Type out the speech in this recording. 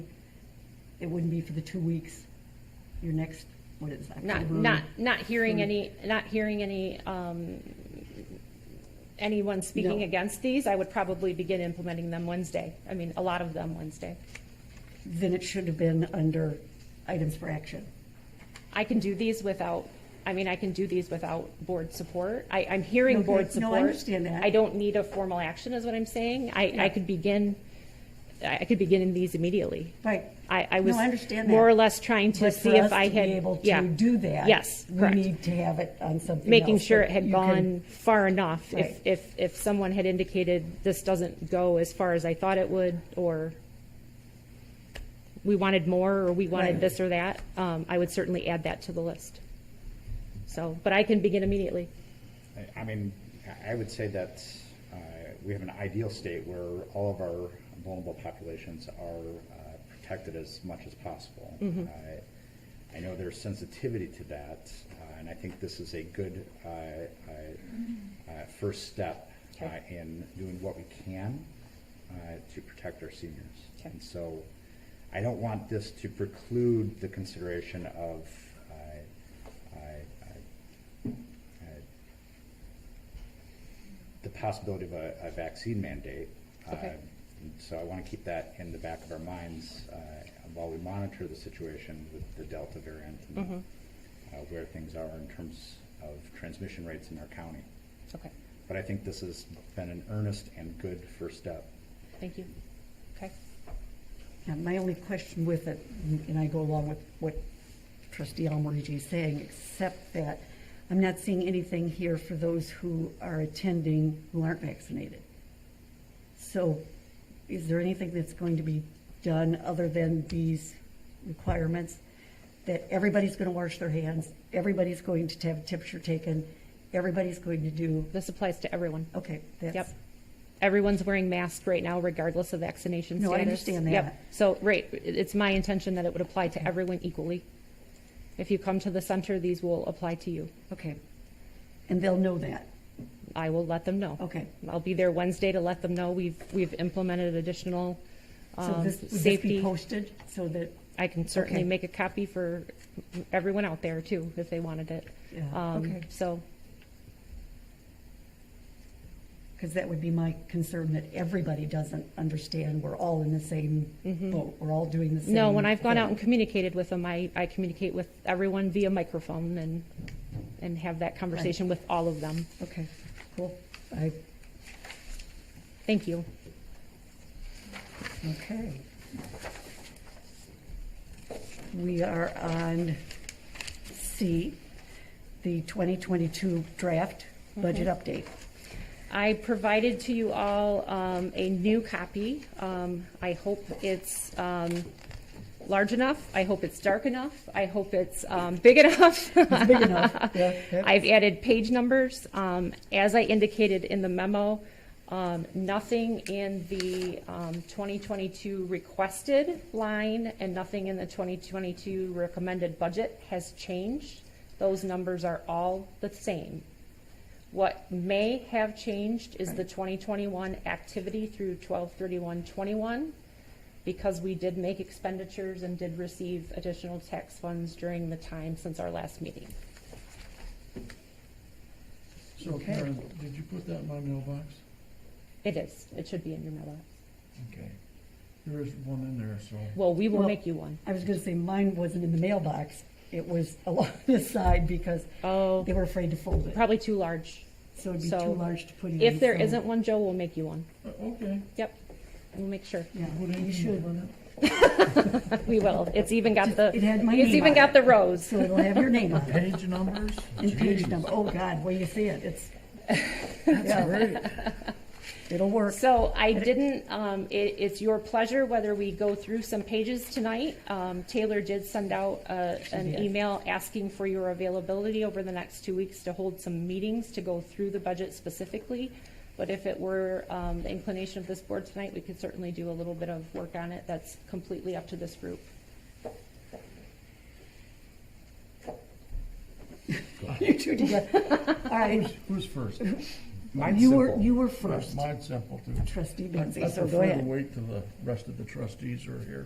it wouldn't be for the two weeks, your next, what is that? Not, October? not, not Mm-hmm. hearing any, not hearing any, um, anyone speaking No. against these, I would probably begin implementing them Wednesday. I mean, a lot of them Wednesday. Then it should have been under items for action. I can do these without, I mean, I can do these without board support. I, I'm hearing Okay. board support. No, I understand that. I don't need a formal action, is what I'm saying. I, Yeah. I could begin, I I could begin in these immediately. Right. I, I was No, I understand that. more or less trying to But see for if us I to be had. able to yeah. do that, Yes, correct. We need to have it on something Making else sure that it had you can- gone far enough. Right. If, if, if someone had indicated this doesn't go as far as I thought it would, or we wanted more, or we Right. wanted this or that, um, I would certainly add that to the list. So, but I can begin immediately. I- I mean, I- I would say that uh, we have an ideal state where all of our vulnerable populations are uh, protected as much as possible. Mm-hmm. Uh, I- I know there's sensitivity to that, uh, and I think this is a good uh, uh, uh, first step uh, Okay. in doing what we can uh, to protect our seniors. Okay. And so I don't want this to preclude the consideration of uh, uh, uh, uh, the possibility of a, a vaccine mandate. Okay. Uh, and So I want to keep that in the back of our minds uh, while we monitor the situation with the Delta variant and uh, where things are in terms of transmission rates in our county. Okay, But I think this has been an earnest and good first step. thank you. Okay. Yeah, my only question with it, and I go along with what trustee Almarigi is saying, except that I'm not seeing anything here for those who are attending who aren't vaccinated. So is there anything that's going to be done other than these requirements? That everybody's going to wash their hands, everybody's going to have a temperature taken, everybody's going to do, This applies to everyone. okay, that's. Yep. Everyone's wearing masks right now regardless of vaccination No, status. I understand that. Yep. So, right, it- it's my intention that it would apply to everyone equally. If you come to the center, these will apply to you. Okay. And they'll know that, I will let them know. okay. I'll be there Wednesday to let them know we've, we've implemented additional So um, this, would this be safety. posted so that, I can certainly Okay. make a copy for everyone out there too, if they wanted it. yeah, okay, Um, So, because that would be my concern that everybody doesn't understand, we're all in the same boat, we're all doing the same. Mm-hmm. No, when I've gone out and thing. communicated with them, I, I communicate with everyone via microphone and, and have that conversation with all of them. Okay, cool, I, Thank you. okay. We are on C, the 2022 draft Mm-hmm. budget update. I provided to you all um, a new copy. Um, I hope it's um, large enough. I hope it's dark enough. I hope it's um, big enough. It's big enough, yeah, yeah. I've added page numbers. Um, As I indicated in the memo, um, nothing in the um, 2022 requested line and nothing in the 2022 recommended budget has changed. Those numbers are all the same. What may have changed is the 2021 activity through 12/31/21, because we did make expenditures and did receive additional tax funds during the time since our last meeting. So Okay. Karen, did you put that in my mailbox? It is, it should be in your mailbox. Okay. There is one in there, so. Well, we will Well- make you one. I was going to say mine wasn't in the mailbox, it was along the side because Oh, they were afraid to fold it. probably too large. So it'd be So, too large to put in. If there so- isn't one, Joe will make you one. Uh, Okay. Yep, we'll make sure. Yeah, Put anything you should. on We will. It's even got the, It had my it's name even on got it. the rose. So it'll have your name on it? it Page numbers? and page Jeez, number. Oh, God, where you see it, it's, That's great. it'll work. So I didn't, um, it, it's your pleasure whether we go through some pages tonight. Um, Taylor did send out, uh, an did. email asking for your availability over the next two weeks to hold some meetings to go through the budget specifically. But if it were, um, the inclination of this board tonight, we could certainly do a little bit of work on it. That's completely up to this group. You two together. All right, Who's first? Mine's you were, simple. you were first, Mine's simple too. trustee I Benzie, so go prefer to ahead. wait till the rest of the trustees are here.